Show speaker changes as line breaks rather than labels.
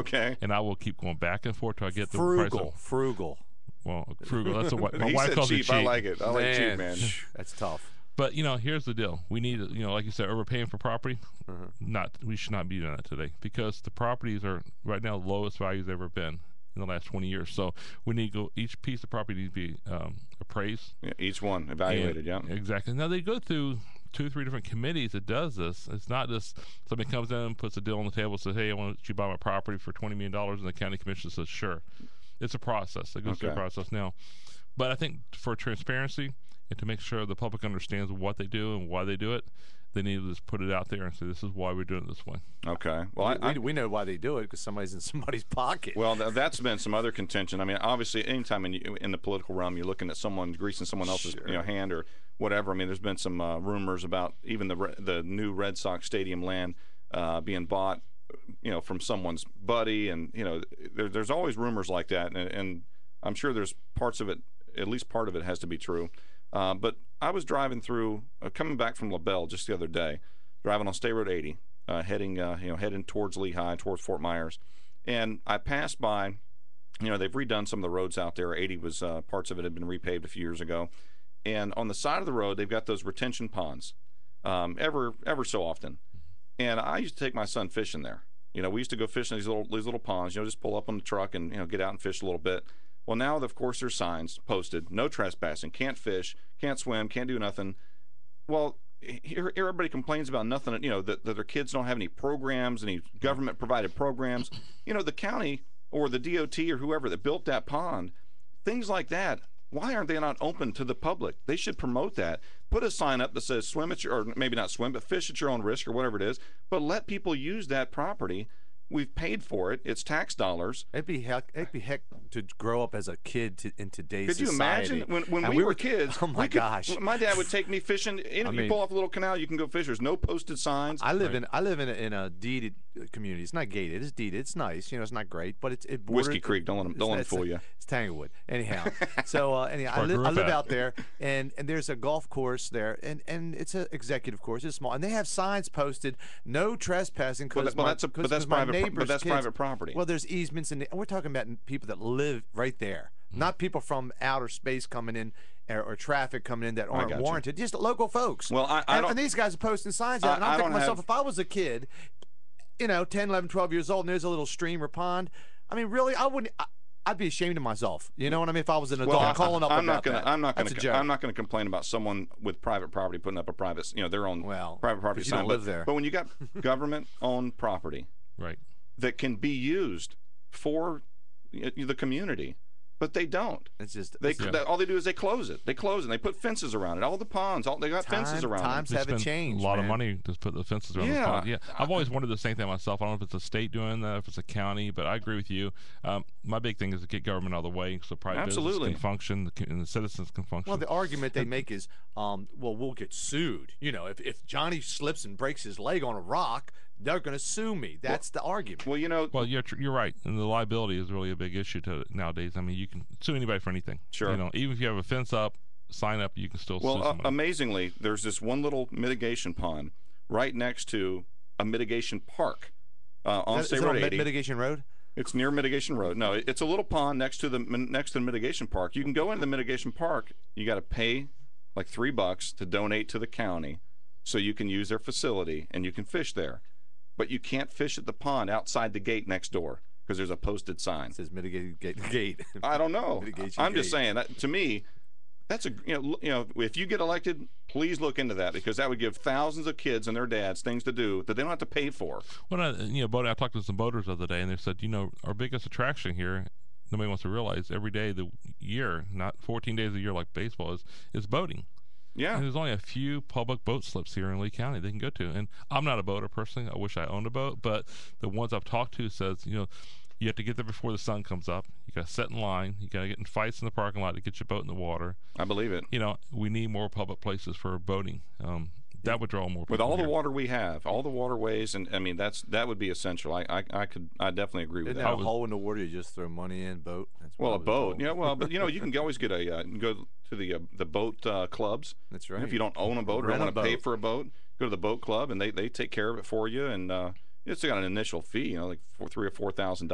Okay.
and I will keep going back and forth till I get the price.
frugal,
Of,
frugal.
well, frugal. That's what my
he
wife
said
calls
cheap.
it cheap.
I like it. I like cheap, man.
That's tough.
But you know, here's the deal: we need, you know, like you said, overpaying for property.
Mm-hmm.
Not we should not be doing that today because the properties are right now the lowest values they've ever been in the last 20 years. So we need to go. Each piece of property needs to be um, appraised.
Yeah, each one
and-
evaluated. Yeah.
Exactly. Now they go through two, three different committees that does this. It's not just somebody comes in and puts a deal on the table, says, "Hey, I want you to buy my property for 20 million dollars," and the county commission says, "Sure." It's a process. It goes through a
Okay.
process now. But I think for transparency and to make sure the public understands what they do and why they do it, they need to just put it out there and say, this is why we're doing it this way.
Okay. Well, I,
we,
I,
we know why they do it because somebody's in somebody's pocket.
well, th- that's been some other contention. I mean, obviously, anytime in in the political realm, you're looking at someone greasing someone else's you know hand or whatever. I mean, there's been some uh, rumors about even the re- the new Red Sox stadium land uh, being bought, you know, from someone's buddy, and you know, there, there's always rumors like that, and, and I'm sure there's parts of it, at least part of it, has to be true. Uh, but I was driving through, uh, coming back from La Belle just the other day, driving on State Road 80, uh, heading uh, you know heading towards Lehigh, towards Fort Myers, and I passed by. You know they've redone some of the roads out there. 80 was uh, parts of it had been repaved a few years ago, and on the side of the road they've got those retention ponds, um, ever ever so often. And I used to take my son fishing there. You know we used to go fishing these little these little ponds. You know just pull up on the truck and you know get out and fish a little bit. Well now of course there's signs posted: no trespassing, can't fish, can't swim, can't do nothing well here everybody complains about nothing you know that, that their kids don't have any programs any government provided programs you know the county or the dot or whoever that built that pond things like that why aren't they not open to the public they should promote that put a sign up that says swim at your or maybe not swim but fish at your own risk or whatever it is but let people use that property we've paid for it it's tax dollars
It'd be heck, it'd be heck to grow up as a kid to, in today's
could you
society.
imagine when, when
And
we, were, kids?
Oh my
we could-
gosh!
My dad would take me fishing. Any,
I
you
mean-
pull off a little canal, you can go fish. There's no posted signs.
I live in I live in a, in a deeded uh, community. It's not gated. It's deeded. It's nice. You know, it's not great, but it's it
Whiskey
bordered-
Creek. Don't let them,
It's
don't let
not-
'em
it's
fool
not-
you.
It's Tanglewood. Anyhow, so uh, anyhow,
where
I,
I
li-
grew
I
up
live
at.
out there, and, and there's a golf course there, and, and it's an executive course. It's small, and they have signs posted, no trespassing.
Well,
Cause
that- well,
my-
that's a- but
'cause-
that's
'cause my
private pro- but
neighbor's
that's
kids-
private property.
Well, there's easements, and we're talking about people that live right there,
Hmm.
not people from outer space coming in. Or, or traffic coming in that aren't
got you.
warranted, just local folks.
Well, I- I
and,
don't-
and these guys are posting signs out,
I-
and I'm
I
thinking to
don't
myself,
have-
if I was a kid, you know, 10, 11, 12 years old, and there's a little stream or pond. I mean, really, I wouldn't. I, I'd be ashamed of myself. You know what I mean? If I was an adult
I-
calling up
I'm
about
not gonna,
that.
I'm not gonna,
That's a
co-
joke.
I'm not gonna complain about someone with private property putting up a private, you know, their own
Well,
private property
'cause you
sign.
don't
but,
live there.
but when you got government-owned property
Right.
that can be used for y- the community, but they don't.
It's just
They,
it's
Yeah.
they all they do is they close it. They close it. and They put fences around it. All the ponds. All they got fences
time-
around. them.
Times
They
haven't
spend
changed.
A lot of
man.
money to put the fences around
Yeah.
the pond. Yeah, I've always wondered the same thing myself. I don't know if it's a state doing that, if it's a county, but I agree with you. Um, my big thing is to get government out of the way so private
Absolutely.
business can function the co- and the citizens can function.
Well, the argument they make is, um, well, we'll get sued. You know, if, if Johnny slips and breaks his leg on a rock, they're going to sue me. That's the argument.
Well, you know,
Well, you're tr- you're right, and the liability is really a big issue to nowadays. I mean, you can sue anybody for anything.
Sure.
You know, even if you have a fence up, sign up, you can still sue
Well, uh,
somebody.
amazingly, there's this one little mitigation pond right next to a mitigation park uh, on
Is that-
State
is that
Road
on Mi-
80.
Mitigation Road?
it's near Mitigation Road. No, it- it's a little pond next to the min- next to the mitigation park. You can go into the mitigation park. You got to pay like three bucks to donate to the county, so you can use their facility and you can fish there. But you can't fish at the pond outside the gate next door because there's a posted sign.
It says mitigated gate. gate.
I don't know.
Mitigation
I'm just
gate.
saying that to me, that's a you know l- you know if you get elected, please look into that because that would give thousands of kids and their dads things to do that they don't have to pay for.
Well, I, you know, boating, I talked to some boaters the other day, and they said, you know, our biggest attraction here, nobody wants to realize, every day of the year, not 14 days a year like baseball is, is boating. And
Yeah,
there's only a few public boat slips here in Lee County they can go to. And I'm not a boater personally. I wish I owned a boat, but the ones I've talked to says, you know, you have to get there before the sun comes up. You got to set in line. You got to get in fights in the parking lot to get your boat in the water.
I believe it.
You know, we need more public places for boating. Um, that would draw more people.
With all the
here.
water we have, all the waterways, and I mean that's that would be essential. I I, I could I definitely agree with
Isn't
that.
that a
was-
hole in the water you just throw money in? Boat? That's what
Well,
I
a
was
boat.
told.
Yeah, well, but you know, you can always get a uh, go to the uh, the boat uh, clubs.
That's
And
right.
If you don't own a boat or
Rent
don't
a
want to pay
boat.
for a boat, go to the boat club and they, they take care of it for you. And uh, it's got an initial fee, you know, like four, three or four thousand